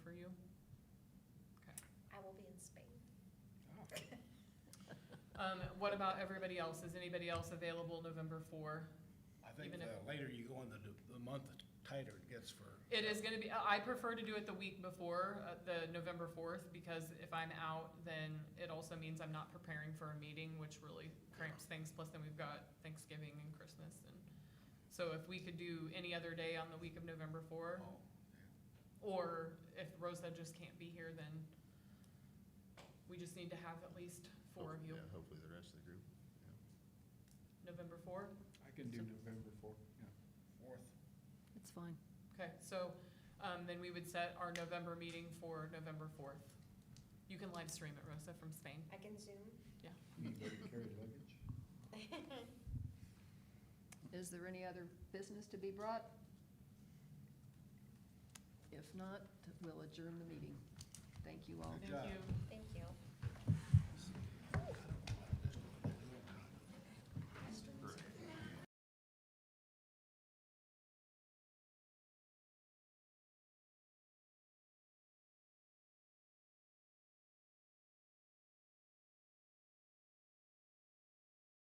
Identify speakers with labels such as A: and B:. A: something.
B: Um, what about everybody else? Is anybody else available November four?
C: I think
B: Even
C: the
B: if-
C: later you go in the, d- the month, the tighter it gets for.
B: It is gonna be, I I prefer to do it the week before, uh, the November fourth, because if I'm out, then it also means I'm not preparing for a meeting, which really cramps things, plus then we've got Thanksgiving and Christmas and, so if we could do any other day on the week of November four,
C: Oh,
B: or if Rosa just can't be here, then we just need to have at least four of you.
D: Yeah, hopefully the rest of the group.
B: November four?
E: I can do November fourth, yeah.
C: Fourth,
F: It's fine.
B: Okay, so, um, then we would set our November meeting for November fourth. You can live stream it, Rosa, from Spain.
A: I can zoom.
E: Anybody carry luggage?
F: Is there any other business to be brought? If not, we'll adjourn the meeting. Thank you all.
C: Good
B: Thank
C: job.
B: you.
A: Thank you.